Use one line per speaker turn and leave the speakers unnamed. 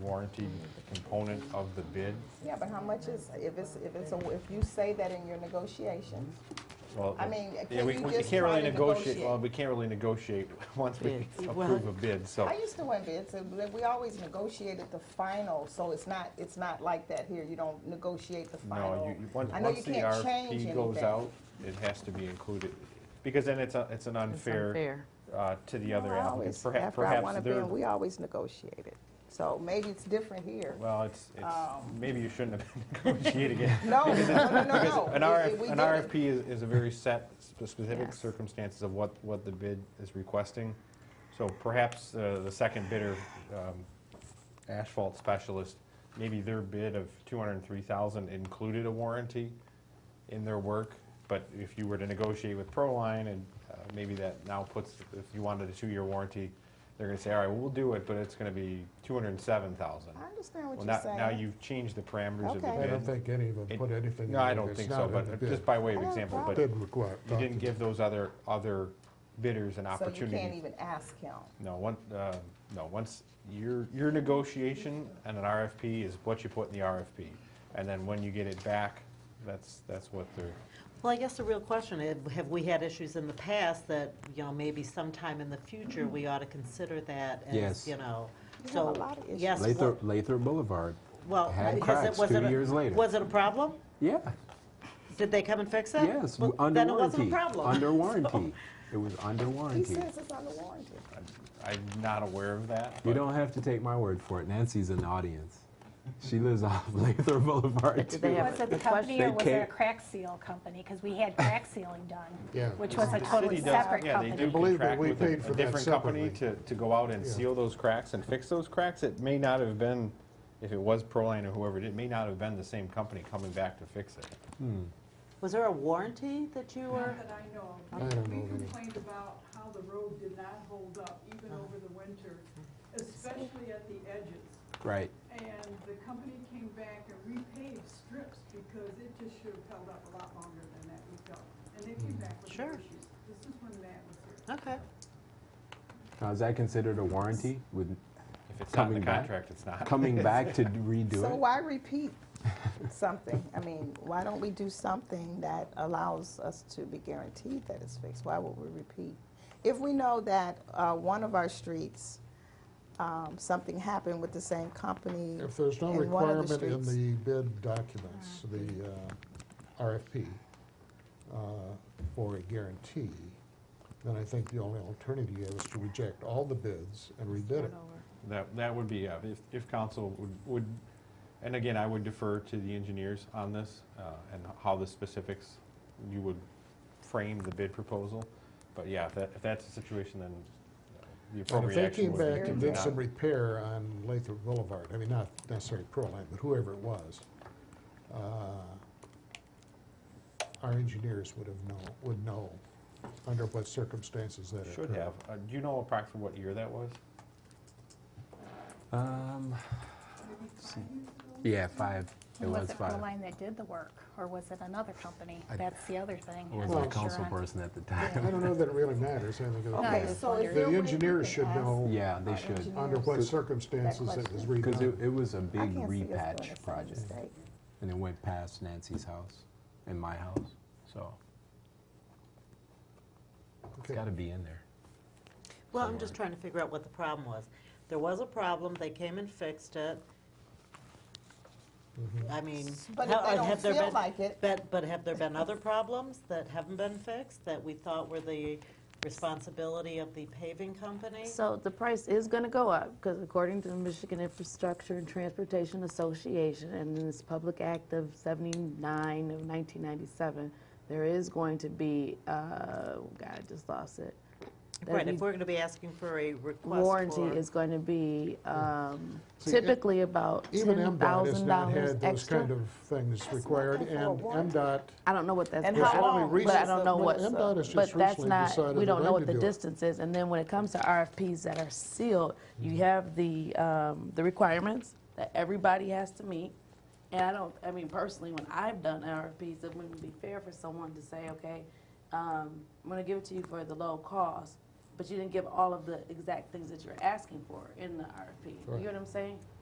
warranty component of the bid.
Yeah, but how much is, if it's, if it's, a if you say that in your negotiations,
Well,
I mean,
yeah,
can
we-
you
we
just
can't really
try to
Well,
negotiate?
we can't really negotiate once we
Bids. Well-
approve a bid, so.
I used to win bids, and we- we always negotiated the final, so it's not, it's not like that here, you don't negotiate the
No,
final.
you- you, once,
I know
once
you
the
can't change
RFP goes
anything.
out, it has to be included, because then it's, a- it's an unfair
unfair.
uh, to the other
Well, I
applicants.
always-
Perha-
After I won
Perhaps
a
they're,
bid, we always negotiated, so maybe it's different here.
well, it's, it's,
Um,
maybe you shouldn't have been negotiating it.
No, no, no, no, no.
An
We- we
RF, an
did it.
RFP is, is a very set, sp- specific
Yes.
circumstances of what, what the bid is requesting. So perhaps uh, the second bidder, um, asphalt specialist, maybe their bid of two hundred and three thousand included a warranty in their work, but if you were to negotiate with Proline and uh, maybe that now puts, if you wanted a two-year warranty, they're gonna say, all right, well, we'll do it, but it's gonna be two hundred and seven thousand.
I understand what
Well,
you're
now,
saying.
now you've changed the parameters of the bid.
Okay. I
I don't think any of them
It-
put anything. in
No, I
there
don't
that's
think
not
so,
in the
but
bid.
just by way of
I don't
example,
have a
but
Bid
you
request.
didn't give those other, other bidders an opportunity.
So you can't even ask him.
No, one, uh, no, once, your, your negotiation and an RFP is what you put in the RFP. And then when you get it back, that's, that's what the,
Well, I guess the real question is, have we had issues in the past that, you know, maybe sometime in the future, we ought to consider that as,
Yes.
you know?
We
so
have a lot of issues.
Yes,
Lather,
what-
Lather Boulevard.
well,
had
because it
cracks
was
two
it a-
years later.
Was it a problem?
Yeah,
Did they come and fix it?
yes,
Well,
w- under
Then it wasn't a
warranty.
problem.
Under warranty. It was under
He
warranty.
says it's under warranty.
I'm not aware of that.
You
but-
don't have to take my word for it. Nancy's in the audience. She lives off Lather Boulevard
did they
too.
have-
Was it the company or
They
was it a
can't-
crack seal company? Because we had crack sealing
Yeah.
done, which was a
The
totally
city does-
separate
yeah, they do
company.
Believe me,
contract
we
with a-
paid for
a
that
different company to,
separately.
to go out and
Yeah.
seal those cracks and fix those cracks. It may not have been, if it was Proline or whoever, it did, it may not have been the same company coming back to fix it.
Was there a warranty that you were?
Not that I know
I don't
of. We
know of any.
complained about how the road did not hold up even over the winter, especially at the edges.
Right.
And the company came back and repaved strips because it just should have held up a lot longer than that we felt. And they came back with
Sure.
their issues. This is when Matt was here.
Okay.
Now, is that considered a warranty with
If it's not in the
Coming back?
contract, it's not.
coming back to redo
So
it?
why repeat something? I mean, why don't we do something that allows us to be guaranteed that it's fixed? Why would we repeat? If we know that uh, one of our streets, um, something happened with the same company.
If there's no
in one of
requirement in
streets-
the bid documents, the uh, RFP, uh, for a guarantee, then I think the only alternative is to reject all the bids and rebid it.
That, that would be, uh, if, if council would, would, and again, I would defer to the engineers on this uh, and how the specifics, you would frame the bid proposal. But yeah, if that, if that's the situation, then uh, the
And if
appropriate
they
action
came
would be.
back
to
and did
not-
some repair on Lathrop Boulevard, I mean, not necessarily Pearline, but whoever it was, uh, our engineers would have known, would know under what circumstances that occurred.
Should have. Uh, Do you know approximately what year that was?
Um, yeah, five. It
And
was
Was it
five.
Proline that did the work or was it another company?
I-
That's the other thing.
Or was
I'm
I a
not sure
council
on.
person at the
I
time?
don't know that it really matters. I think it-
I
Okay,
was
so is
wondering.
there a
The
way we
engineers
can
should
ask
know
Yeah, they
our
should.
engineers?
under what circumstances it was redone.
Because it, it was a
I
big
can't see us doing the
repatch
same
project.
mistake.
And it went past Nancy's house and my house, so it's
Okay.
gotta be in there.
Well, I'm just trying to figure out what the problem was. There was a problem, they came and fixed it. I mean,
Mm-hmm. But
how- uh,
if they don't
have there
feel
been-
like it,
But, but have there been other problems that haven't been fixed that we thought were the responsibility of the paving company?
So the price is going to go up because according to the Michigan Infrastructure and Transportation Association and in this Public Act of 79 of 1997, there is going to be, uh, oh God, I just lost it. That'd
Right, if
be-
we're gonna be asking for a request
Warranty
for-
is going to be um,
See, it-
typically about
Even MDOT has not
$10,000
had those kind
extra.
of things required,
nothing for a
and
warranty.
MDOT,
I don't know what that's.
And
gonna
how
be,
long?
But I
Recently-
don't know
well,
what's,
MDOT has
but
just
that's
recently
not,
decided
we
they'd
don't
like
know what
to
the
do it.
distance is. And then when it comes to RFPs that are sealed, you
Mm-hmm.
have the, um, the requirements that everybody has to meet. And I don't, I mean, personally, when I've done RFPs, it wouldn't be fair for someone to say, okay, um, I'm gonna give it to you for the low cost, but you didn't give all of the exact things that you're asking for in the RFP. You
Right.
know what I'm saying?